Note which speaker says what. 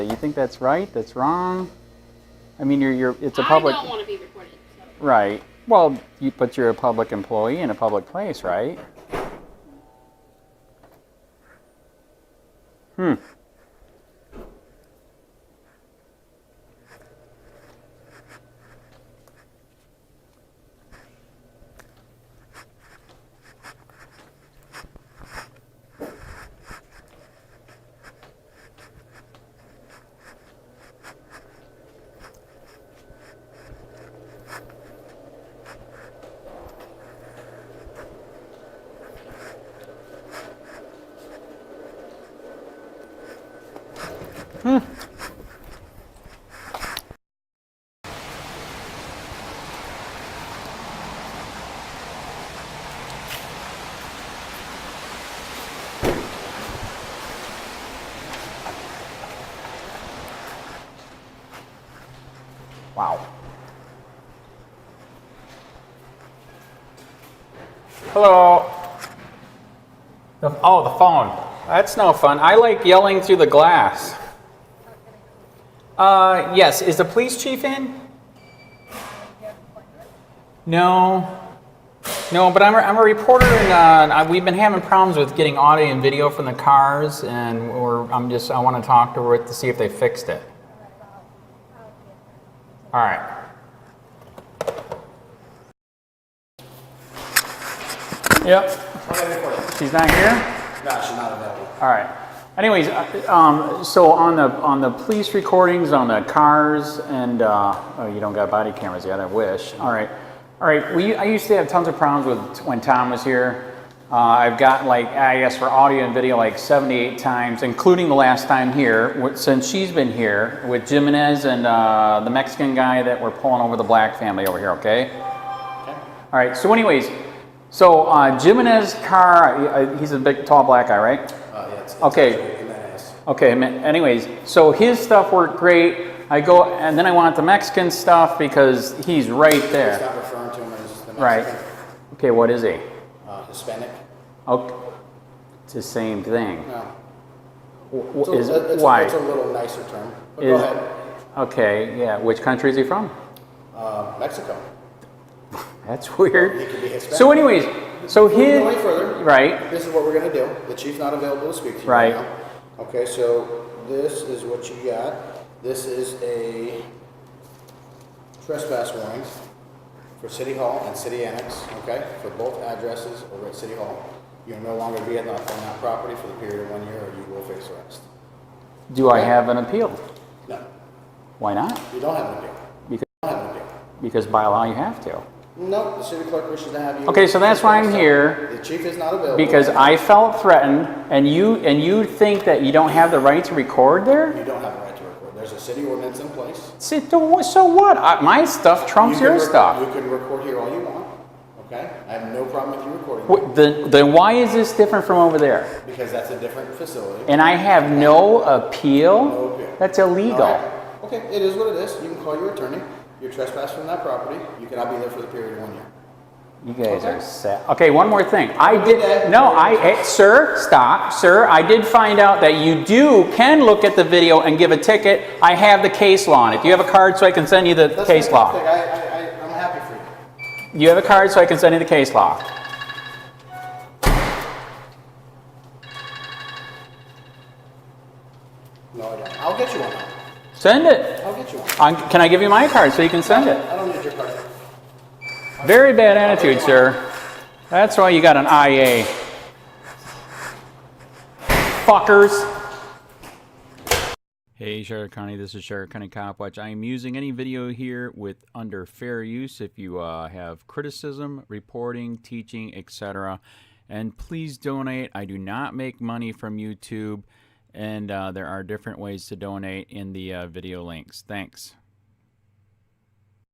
Speaker 1: You think that's right? That's wrong? I mean, you're you're it's a
Speaker 2: I
Speaker 1: public
Speaker 2: don't want to be recorded. So.
Speaker 1: right. Well, you but you're a public employee in a public place, right? Hmm. Wow. Hello. The- oh, the phone. That's no fun. I like yelling through the glass. Uh, yes. Is the police chief in? No. No, but I'm a, I'm a reporter, and uh, I, we've been having problems with getting audio and video from the cars, and we're, I'm just I want to talk to her to see if they fixed it. All right. Yep. She's not here?
Speaker 3: No, she's not available.
Speaker 1: All right. Anyways, uh, um, so on the, on the police recordings, on the cars and, uh, oh, you don't got body cameras yet, I wish. All right. All right. We, I used to have tons of problems with when Tom was here. Uh, I've got like, I asked for audio and video like 78 times, including the last time here, wh- since she's been here with Jimenez and, uh, the Mexican guy that we're pulling over the black family over here, okay? All right. So, anyways, so uh, Jimenez Carr, uh, he's a big, tall black guy, right?
Speaker 3: Uh, yeah, it's, it's
Speaker 1: Okay.
Speaker 3: actually in that ass.
Speaker 1: Okay. ma- Anyways, so his stuff worked great. I go, and then I want the Mexican stuff because he's right
Speaker 3: It's
Speaker 1: there.
Speaker 3: not referring to him as the Mexican.
Speaker 1: Right. Okay. What is he?
Speaker 3: Uh, Hispanic.
Speaker 1: Okay. It's the same thing.
Speaker 3: No.
Speaker 1: Wh-
Speaker 3: It's
Speaker 1: wh-
Speaker 3: a-
Speaker 1: Is,
Speaker 3: uh, it's a,
Speaker 1: why?
Speaker 3: It's a little nicer term. But go
Speaker 1: Is-
Speaker 3: ahead.
Speaker 1: Okay. Yeah. Which country is he from?
Speaker 3: Uh, Mexico.
Speaker 1: That's
Speaker 3: He
Speaker 1: weird.
Speaker 3: could be Hispanic.
Speaker 1: So, anyways, so
Speaker 3: Going any
Speaker 1: his
Speaker 3: further.
Speaker 1: right.
Speaker 3: This is what we're gonna do. The chief's not available to speak to you
Speaker 1: Right.
Speaker 3: right now. Okay, so this is what you got. This is a trespass warning for City Hall and City Annex, okay? For both addresses over at City Hall. You'll no longer be on that, on that property for the period of one year or you will face arrest.
Speaker 1: Do I have an appeal?
Speaker 3: No,
Speaker 1: Why not?
Speaker 3: you don't have an appeal.
Speaker 1: Because
Speaker 3: You don't have an appeal.
Speaker 1: because by law you have to.
Speaker 3: No, the city clerk wishes to have you.
Speaker 1: Okay, so that's why I'm here.
Speaker 3: The chief is not available.
Speaker 1: Because I felt threatened, and you, and you think that you don't have the right to record there?
Speaker 3: You don't have a right to record. There's a city ordinance in place.
Speaker 1: So so what? I- My stuff trumps
Speaker 3: You
Speaker 1: your
Speaker 3: can rec-
Speaker 1: stuff.
Speaker 3: You can record here all you want, okay? I have no problem with you recording,
Speaker 1: Wh- Then, then why is this different from over there?
Speaker 3: because that's a different facility.
Speaker 1: And I have no
Speaker 3: No
Speaker 1: appeal?
Speaker 3: appeal.
Speaker 1: That's
Speaker 3: All
Speaker 1: illegal.
Speaker 3: right. Okay, it is what it is. You can call your attorney. You're trespassing from that property. You cannot be there for the period of one year.
Speaker 1: You guys
Speaker 3: Okay.
Speaker 1: are sad. Okay, one more thing. I did,
Speaker 3: Okay.
Speaker 1: no, I, eh, sir, stop, sir. I did find out that you do, can look at the video and give a ticket. I have the case law on it. Do you have a card so I can send you the
Speaker 3: That's
Speaker 1: case
Speaker 3: not
Speaker 1: law?
Speaker 3: a mistake. I, I, I- I'm happy for you.
Speaker 1: You have a card so I can send you the case law.
Speaker 3: No, I don't. I'll get you one. though.
Speaker 1: Send it.
Speaker 3: I'll get you one.
Speaker 1: i can I give you my card so you can send it?
Speaker 3: I don't need your card.
Speaker 1: Very bad attitude, sir. That's why you got an IA. Fuckers. Hey, Sheriff County, this is Sheriff County Cop Watch. I am using any video here with under fair use if you uh, have criticism, reporting, teaching, etc. And please donate. I do not make money from YouTube, and uh, there are different ways to donate in the uh, video links. Thanks.